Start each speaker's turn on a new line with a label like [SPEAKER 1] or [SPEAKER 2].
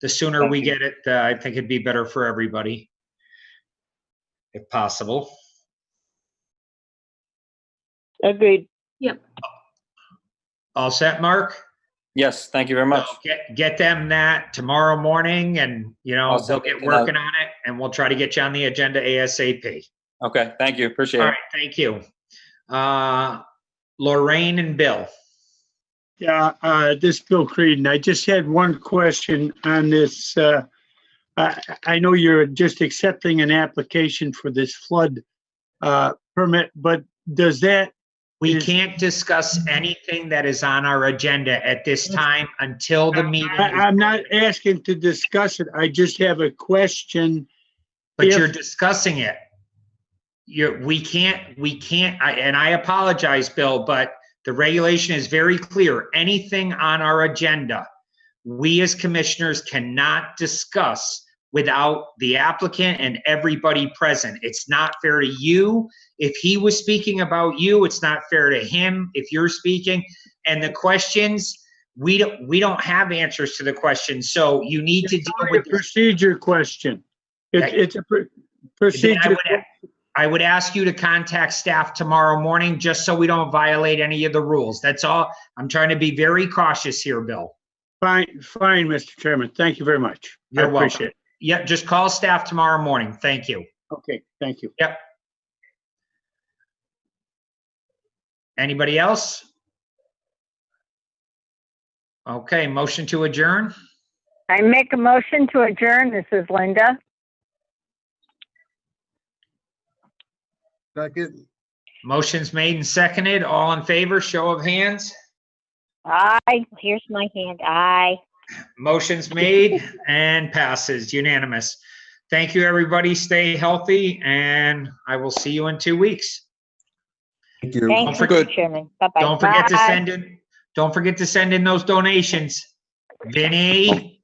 [SPEAKER 1] the sooner we get it, uh, I think it'd be better for everybody. If possible.
[SPEAKER 2] Agreed.
[SPEAKER 1] All set, Mark?
[SPEAKER 3] Yes, thank you very much.
[SPEAKER 1] Get, get them that tomorrow morning and, you know,
[SPEAKER 3] Awesome.
[SPEAKER 1] they'll get
[SPEAKER 3] Good night.
[SPEAKER 1] working on it and we'll try to get you on the agenda ASAP.
[SPEAKER 3] Okay, thank you,
[SPEAKER 1] All
[SPEAKER 3] appreciate it.
[SPEAKER 1] right, thank you. Uh, Lorraine and Bill.
[SPEAKER 4] Yeah, uh, this is Bill Creedon. I just had one question on this. uh, I I know you're just accepting an application for this flood uh, permit, but does that,
[SPEAKER 1] We
[SPEAKER 4] Is-
[SPEAKER 1] can't discuss anything that is on our agenda at this time until the meeting.
[SPEAKER 4] I- I'm not asking to discuss it. I just have a question.
[SPEAKER 1] But
[SPEAKER 4] if-
[SPEAKER 1] you're discussing it. You're, we can't, we can't, I, and I apologize, Bill, but the regulation is very clear. Anything on our agenda, we as commissioners cannot discuss without the applicant and everybody present. It's not fair to you. If he was speaking about you, it's not fair to him if you're speaking. And the questions, we don't, we don't have answers to the questions, so you need to deal
[SPEAKER 4] Only a
[SPEAKER 1] with this
[SPEAKER 4] procedure question. It-
[SPEAKER 1] Okay.
[SPEAKER 4] It's a pr-
[SPEAKER 1] then I
[SPEAKER 4] procedure.
[SPEAKER 1] would a- I would ask you to contact staff tomorrow morning, just so we don't violate any of the rules. That's all. I'm trying to be very cautious here, Bill.
[SPEAKER 4] Fine, fine, Mr. Chairman. Thank you very much. I
[SPEAKER 1] You're welcome.
[SPEAKER 4] appreciate it.
[SPEAKER 1] Yeah, just call staff tomorrow morning. Thank you.
[SPEAKER 4] Okay, thank you.
[SPEAKER 1] Anybody else? Okay, motion to adjourn.
[SPEAKER 2] I make a motion to adjourn. This is Linda.
[SPEAKER 5] Second,
[SPEAKER 1] Motion's made and seconded. All in favor, show of hands.
[SPEAKER 2] Aye. Here's my hand. Aye.
[SPEAKER 1] Motion's made and passes unanimous. Thank you, everybody. Stay healthy and I will see you in two weeks.
[SPEAKER 5] thank you.
[SPEAKER 2] Thank you,
[SPEAKER 3] forget-
[SPEAKER 2] Mr. Chairman. Bye-bye.
[SPEAKER 1] Don't forget to
[SPEAKER 2] Bye.
[SPEAKER 1] send in, don't forget to send in those donations. Vinny,